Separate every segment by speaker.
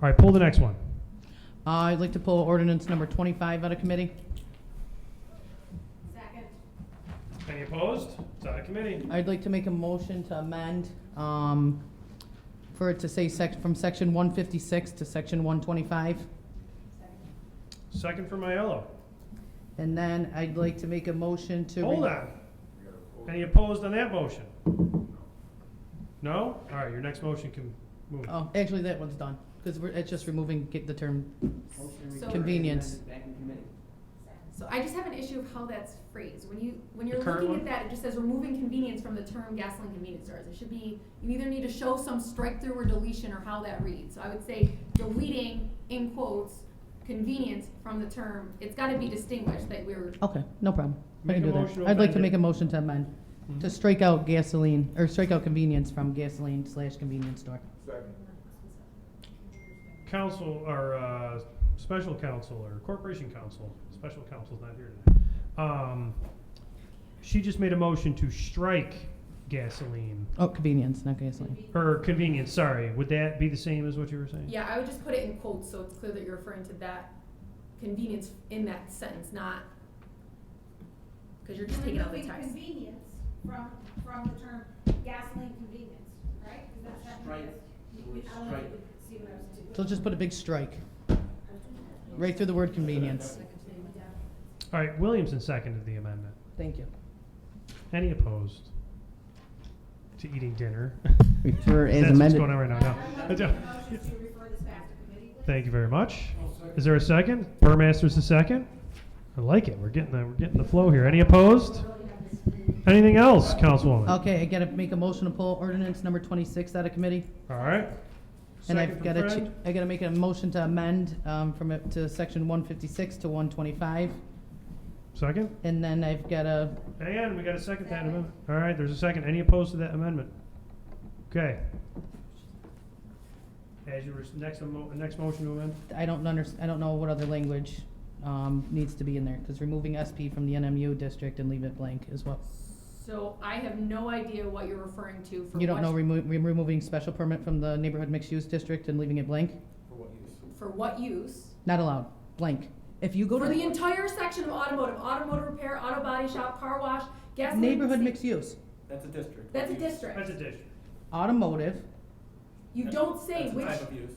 Speaker 1: right, pull the next one.
Speaker 2: Uh, I'd like to pull ordinance number 25 out of committee.
Speaker 1: Any opposed? It's out of committee.
Speaker 2: I'd like to make a motion to amend, um, for it to say sec, from section 156 to section 125.
Speaker 1: Second for Maiello.
Speaker 2: And then I'd like to make a motion to.
Speaker 1: Hold
Speaker 2: re-
Speaker 1: on. Any opposed on that motion? No? All right, your next motion can move.
Speaker 2: Oh, actually, that one's done, because we're, it's just removing, get the term,
Speaker 3: So-
Speaker 2: Convenience.
Speaker 4: Back in committee.
Speaker 3: So I just have an issue of how that's phrased. When you, when you're
Speaker 1: The current
Speaker 3: looking
Speaker 1: one?
Speaker 3: at that, it just says removing convenience from the term gasoline convenience stores. It should be, you either need to show some strike through or deletion or how that reads. So I would say deleting, in quotes, convenience from the term. It's gotta be distinguished that we're,
Speaker 2: okay, no problem. I
Speaker 1: Make
Speaker 2: can
Speaker 1: a
Speaker 2: do
Speaker 1: motion to
Speaker 2: that. I'd like
Speaker 1: amend it.
Speaker 2: to
Speaker 1: Mm-hmm.
Speaker 2: make a motion to amend, to strike out gasoline, or strike out convenience from gasoline slash convenience store.
Speaker 5: Second.
Speaker 1: Council, or, uh, special counsel, or corporation counsel, special counsel's not here today. Um, she just made a motion to strike gasoline,
Speaker 2: Oh, convenience, not gasoline.
Speaker 1: or convenience, sorry. Would that be the same as what you were saying?
Speaker 3: yeah, I would just put it in quotes so it's clear that you're referring to that convenience in that sentence, not, cause you're just taking out the
Speaker 6: Removing
Speaker 3: text.
Speaker 6: Convenience from, from the term gasoline convenience, right? 'Cause that's not-
Speaker 4: Strike.
Speaker 6: You- you- I don't know if you could See what I was doing?
Speaker 2: So just put a big strike, right through the word convenience.
Speaker 1: All right, Williamson seconded the amendment.
Speaker 2: Thank you.
Speaker 1: Any opposed to eating dinner?
Speaker 7: Refer as
Speaker 1: That's what's
Speaker 7: amended.
Speaker 1: going on right now, no.
Speaker 6: I'd like
Speaker 1: That's
Speaker 6: to
Speaker 1: a-
Speaker 6: make a motion to refer this back to committee, please.
Speaker 1: Thank you very much. Is there a second? Burmaster's the second? I like it. We're getting the, we're getting the flow here. Any opposed? Anything else, Councilwoman?
Speaker 2: Okay, I gotta make a motion to pull ordinance number twenty-six out of committee.
Speaker 1: All right.
Speaker 2: And
Speaker 1: Second
Speaker 2: I've
Speaker 1: from
Speaker 2: gotta, ch-
Speaker 1: Fred.
Speaker 2: I gotta make a motion to amend, um, from, it to section one fifty-six to one twenty-five.
Speaker 1: Second?
Speaker 2: And then I've gotta,
Speaker 1: And we got a second to that amendment. All right, there's a second. Any opposed to that amendment? Okay. As your next, emo- next motion to amend?
Speaker 2: I don't under, I don't know what other language, um, needs to be in there, cause removing SP from the NMU district and leave it blank is what.
Speaker 3: So I have no idea what you're referring to for
Speaker 2: You don't
Speaker 3: what-
Speaker 2: know remo- re- removing special permit from the neighborhood mixed-use district and leaving it blank?
Speaker 5: For what use?
Speaker 3: for what use?
Speaker 2: Not allowed, blank. If you go to
Speaker 3: For the
Speaker 2: the
Speaker 3: entire section of automotive, automotive repair, auto body shop, car wash, gas. station-
Speaker 2: neighborhood mixed-use,
Speaker 4: That's a district.
Speaker 3: That's a
Speaker 4: What use?
Speaker 1: That's a
Speaker 3: district.
Speaker 1: district.
Speaker 2: automotive,
Speaker 3: You don't say
Speaker 4: That's a
Speaker 3: which,
Speaker 4: type of use.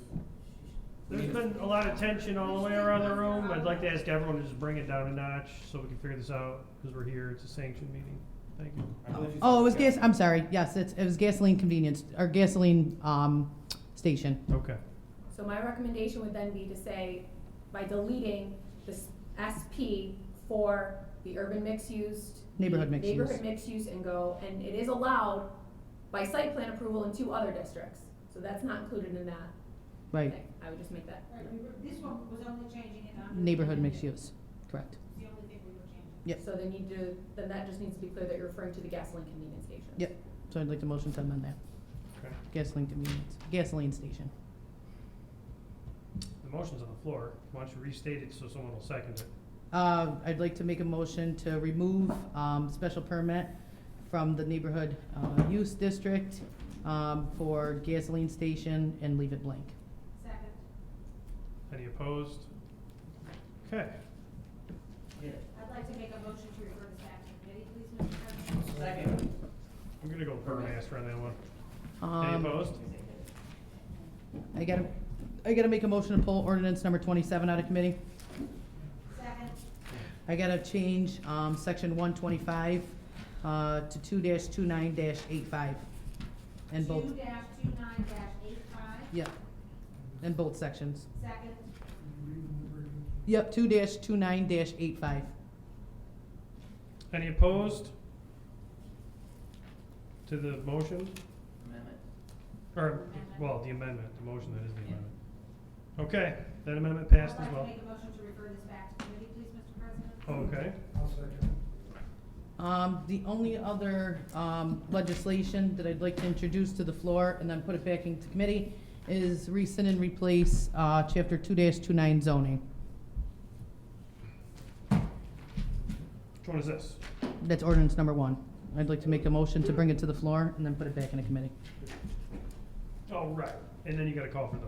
Speaker 1: There's been a lot of tension all the way around the room. I'd like to ask everyone to just bring it down a notch so we can figure this out, because we're here. It's a sanctioned meeting. Thank you.
Speaker 4: I believe you
Speaker 2: Oh, it was
Speaker 4: said-
Speaker 2: gas, I'm sorry, yes, it's, it was gasoline convenience, or gasoline, um, station.
Speaker 1: Okay.
Speaker 3: so my recommendation would then be to say, by deleting this SP for the urban mixed use.
Speaker 2: Neighborhood mixed use.
Speaker 3: Neighborhood mixed use and go, and it is allowed by site plan approval in two other districts, so that's not included in that.
Speaker 2: Right,
Speaker 3: thing. I would just make that.
Speaker 6: Right, we were- This one was only changing it under.
Speaker 2: neighborhood mixed
Speaker 6: convenience.
Speaker 2: use, correct.
Speaker 6: It's the only thing we were changing.
Speaker 2: Yep.
Speaker 3: So they need to, then that just needs to be clear that you're referring to the gasoline convenience station.
Speaker 2: Yep. So I'd like to motion to amend that,
Speaker 1: Okay.
Speaker 2: gasoline convenience, gasoline station.
Speaker 1: The motion's on the floor. Why don't you restate it so someone will second it?
Speaker 2: Uh, I'd like to make a motion to remove, um, special permit from the neighborhood, uh, use district, um, for gasoline station and leave it blank.
Speaker 6: Second.
Speaker 1: Any opposed? Okay.
Speaker 4: Yeah.
Speaker 6: I'd like to make a motion to refer this back to committee, please, Mr. President.
Speaker 4: Second.
Speaker 1: I'm gonna go Burmaster on that one. Any
Speaker 2: Um,
Speaker 1: opposed?
Speaker 2: I gotta, I gotta make a motion to pull ordinance number twenty-seven out of committee.
Speaker 6: Second.
Speaker 2: I gotta change, um, section one twenty-five, uh, to two dash two nine dash eight five. In both,
Speaker 6: Two dash two nine dash eight five.
Speaker 2: yep, in both sections.
Speaker 6: Second.
Speaker 2: Yep, two dash two nine dash eight five.
Speaker 1: Any opposed? To the motion,
Speaker 4: Amendment.
Speaker 1: or, well, the amendment, the motion that is the amendment. Okay, that amendment passed as
Speaker 6: I'd
Speaker 1: well.
Speaker 6: like to make a motion to refer this back to committee, please, Mr. President.
Speaker 1: Okay.
Speaker 2: Um, the only other, um, legislation that I'd like to introduce to the floor and then put it back into committee is rescind and replace, uh, chapter two dash two nine zoning.
Speaker 1: Which one is this?
Speaker 2: That's ordinance number one. I'd like to make a motion to bring it to the floor and then put it back in a committee.
Speaker 1: Oh, right. And then you gotta call for the